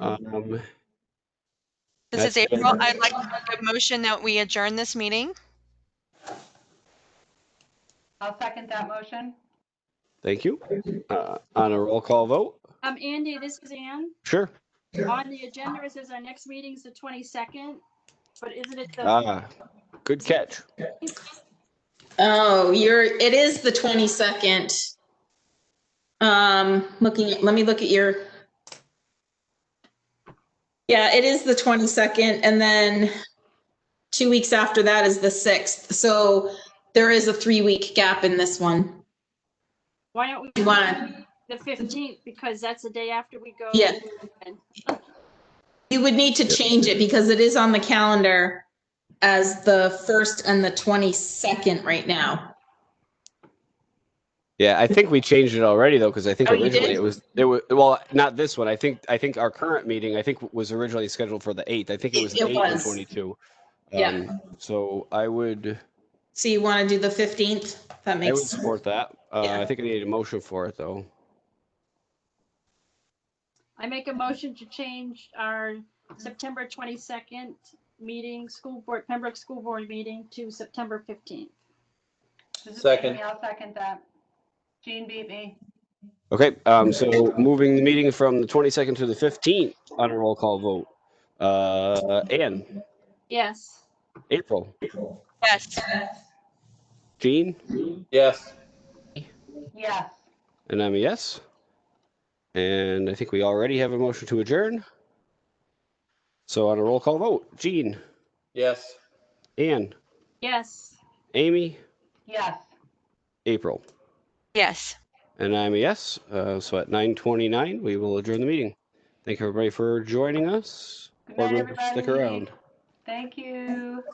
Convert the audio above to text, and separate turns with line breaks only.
Um,
This is
That's-
April. I'd like to make a motion that we adjourn this meeting.
I'll second that motion.
thank you. Uh, on a roll call vote?
Um, Andy, this is Ann.
Sure.
On the agenda, it says our next meeting's the twenty-second, but isn't it the?
Ah, good catch.
Oh, you're, it is the 22nd. Um, looking, at- let me look at your. Yeah, it is the 22nd and then two weeks after that is the 6th. So there is a three-week gap in this one.
Why don't we?
You wanna-
The fifteenth, because that's the day after we go.
Yeah.
and
You would need to change it because it is on the calendar as the 1st and the 22nd right now.
Yeah, I think we changed it already though, because I think
Oh, you
originally
did?
it was, it was, well, not this one. I think, I think our current meeting, I think was originally scheduled for the 8th. I think it
It-
was
it
the 8th and
was.
22.
Yeah.
Um, So I would,
So you want to do the 15th? That
I would
makes,
support that. Uh,
Yeah.
I think I need a motion for it though.
I make a motion to change our September twenty-second meeting, school board, Pembroke School Board meeting to September fifteenth.
This is
Second.
Jamie, I'll second that. Jean beat me.
Okay, um, so moving the meeting from the 22nd to the 15th on a roll call vote. Uh, Ann,
Yes.
April,
Yes.
Jean?
Yes.
Yes.
And I'm a yes. And I think we already have a motion to adjourn. So on a roll call vote, Jean,
Yes.
Ann,
Yes.
Amy,
Yes.
April.
Yes.
And I'm a yes. Uh, so at 9:29, we will adjourn the meeting. Thank you everybody for joining us.
Good
Board
night,
members, stick
everybody.
around.
Thank you.